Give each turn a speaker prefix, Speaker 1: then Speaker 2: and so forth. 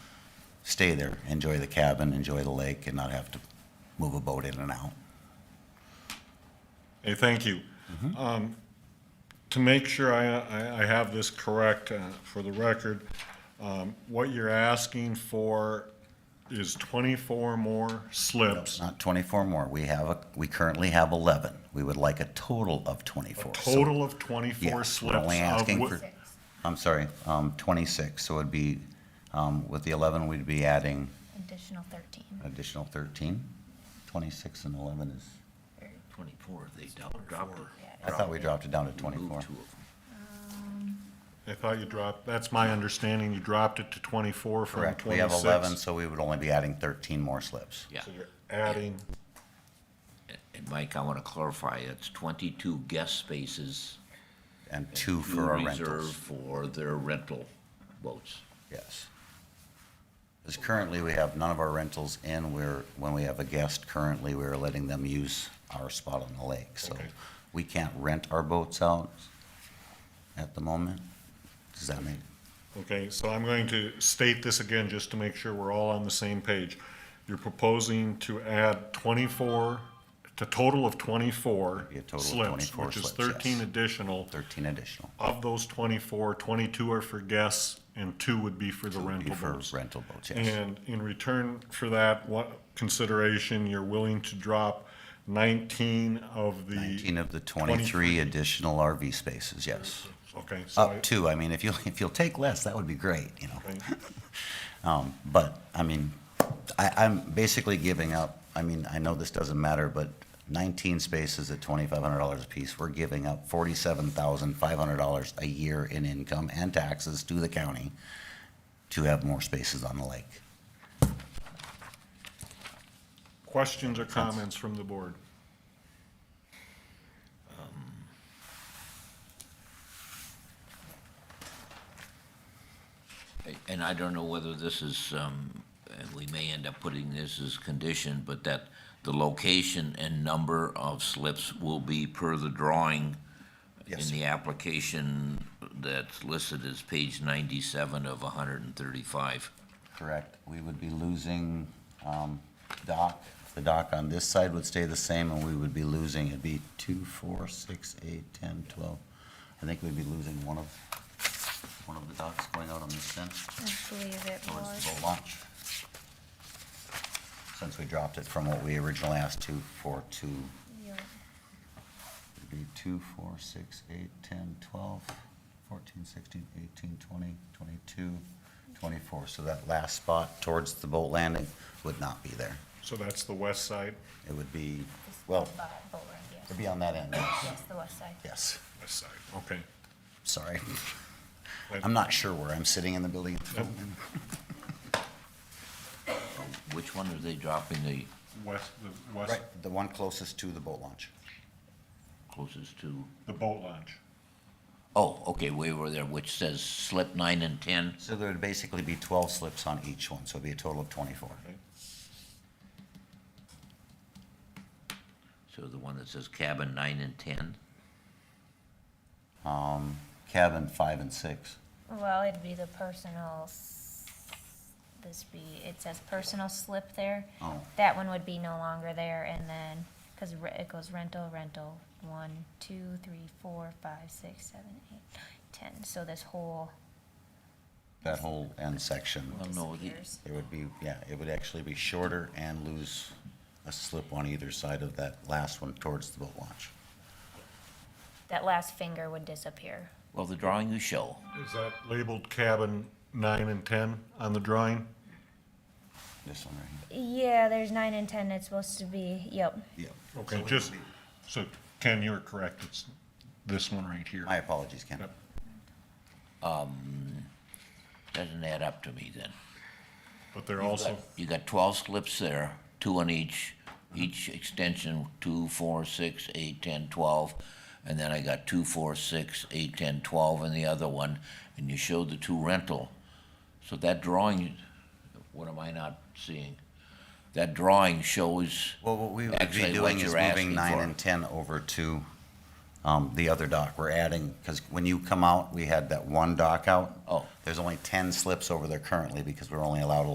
Speaker 1: stay there, enjoy the cabin, enjoy the lake, and not have to move a boat in and out.
Speaker 2: Hey, thank you.
Speaker 1: Mm-hmm.
Speaker 2: Um, To make sure I, I- I have this correct uh, for the record, um, what you're asking for is 24 more slips,
Speaker 1: Not twenty-four more. We have, a we currently have eleven. We would like a total of twenty-four. So-
Speaker 2: total of
Speaker 1: Yeah,
Speaker 2: 24
Speaker 1: we're
Speaker 2: slips.
Speaker 1: only
Speaker 2: of
Speaker 1: asking
Speaker 2: whi-
Speaker 1: for, I'm sorry, um, twenty-six, so it'd be, um, with the eleven, we'd be adding
Speaker 3: Additional thirteen.
Speaker 1: an additional thirteen. Twenty-six and eleven is,
Speaker 4: Twenty-four, they doubled, dropped it.
Speaker 1: I thought we dropped it down to twenty-four.
Speaker 4: Moved two of them.
Speaker 2: I thought you dropped, that's my understanding, you dropped it to 24 from
Speaker 1: Correct,
Speaker 2: 26.
Speaker 1: we have eleven, so we would only be adding thirteen more slips.
Speaker 4: Yeah,
Speaker 2: So you're adding,
Speaker 4: and Mike, I want to clarify, it's twenty-two guest spaces.
Speaker 1: And two for our
Speaker 4: you reserve
Speaker 1: rentals,
Speaker 4: For their rental boats.
Speaker 1: yes. Because currently, we have none of our rentals in, we're, when we have a guest, currently, we're letting them use our spot on the lake, so
Speaker 2: Okay.
Speaker 1: we can't rent our boats out at the moment. Does that make?
Speaker 2: okay, so I'm going to state this again, just to make sure we're all on the same page. You're proposing to add 24, to total of 24
Speaker 1: Be a total of
Speaker 2: slips,
Speaker 1: 24
Speaker 2: which is
Speaker 1: slips, yes.
Speaker 2: 13 additional.
Speaker 1: 13 additional.
Speaker 2: Of those 24, 22 are for guests, and two would be for the
Speaker 1: Be
Speaker 2: rental
Speaker 1: for
Speaker 2: boats.
Speaker 1: rental boats, yes.
Speaker 2: And in return for that, what consideration, you're willing to drop 19 of the.
Speaker 1: 19 of the 23 additional RV spaces, yes.
Speaker 2: Okay, so I-
Speaker 1: Up to, I mean, if you'll, if you'll take less, that would be great, you know?
Speaker 2: okay,
Speaker 1: Um, But, I mean, I, I'm basically giving up, I mean, I know this doesn't matter, but 19 spaces at $2,500 apiece, we're giving up $47,500 a year in income and taxes to the county to have more spaces on the lake.
Speaker 2: Questions or comments from the board?
Speaker 4: And I don't know whether this is, um, and we may end up putting this as condition, but that the location and number of slips will be per the drawing
Speaker 1: Yes,
Speaker 4: in
Speaker 1: sir.
Speaker 4: the application that's listed as page ninety-seven of hundred and thirty-five.
Speaker 1: Correct. We would be losing um, dock. The dock on this side would stay the same, and we would be losing, it'd be two, four, six, eight, 10, 12. I think we'd be losing one of, one of the docks going out on this end,
Speaker 3: I believe it
Speaker 1: towards the
Speaker 3: was.
Speaker 1: boat launch. Since we dropped it from what we originally asked to, for two,
Speaker 3: your-
Speaker 1: it'd be two, four, six, eight, 10, 12, 14, 16, 18, 20, 22, 24. So that last spot towards the boat landing would not be there.
Speaker 2: So that's the west side,
Speaker 1: It would be,
Speaker 3: this
Speaker 1: well,
Speaker 3: bo- boat ramp, yes.
Speaker 1: it'd be on that end, yes.
Speaker 3: Yes, the west side.
Speaker 1: yes,
Speaker 2: west side, okay.
Speaker 1: sorry.
Speaker 2: That-
Speaker 1: I'm not sure where I'm sitting in the building. at the moment.
Speaker 4: Which one are they dropping the
Speaker 2: West, the west,
Speaker 1: Right, the one closest to the boat launch.
Speaker 4: closest to?
Speaker 2: the boat launch.
Speaker 4: Oh, okay, way over there, which says slip nine and ten.
Speaker 1: So there would basically be twelve slips on each one, so it'd be a total of twenty-four.
Speaker 2: okay?
Speaker 4: So the one that says cabin nine and ten.
Speaker 1: Um, cabin five and six.
Speaker 3: Well, it'd be the personal, s- this be, it says personal slip there.
Speaker 1: Oh.
Speaker 3: That one would be no longer there and then, cause re- it goes rental, rental, one, two, three, four, five, six, seven, eight, nine, ten. So this whole
Speaker 1: That whole end section,
Speaker 4: Well, no, the-
Speaker 3: disappears.
Speaker 1: it would be, yeah, it would actually be shorter and lose a slip on either side of that last one towards the boat launch.
Speaker 3: That last finger would disappear.
Speaker 4: Well, the drawing you show,
Speaker 2: Is that labeled cabin nine and 10 on the drawing?
Speaker 1: This one right
Speaker 3: Yeah, there's nine and ten, it's supposed to be, yep.
Speaker 1: here. Yep.
Speaker 2: Okay, just, so Ken, you're correct, it's this one right here.
Speaker 1: My apologies, Ken.
Speaker 2: Yep.
Speaker 4: doesn't add up to me then.
Speaker 2: But they're also,
Speaker 4: You got twelve slips there, two on each, each extension, two, four, six, eight, ten, twelve. And then I got two, four, six, eight, ten, twelve in the other one, and you showed the two rental. So that drawing, what am I not seeing? That drawing shows.
Speaker 1: Well, what we would
Speaker 4: Actually,
Speaker 1: be
Speaker 4: what
Speaker 1: doing is
Speaker 4: you're
Speaker 1: moving
Speaker 4: asking
Speaker 1: nine
Speaker 4: for.
Speaker 1: and ten over to, um, the other dock. We're adding, because when you come out, we had that one dock out.
Speaker 4: Oh.
Speaker 1: There's only ten slips over there currently because we're only allowed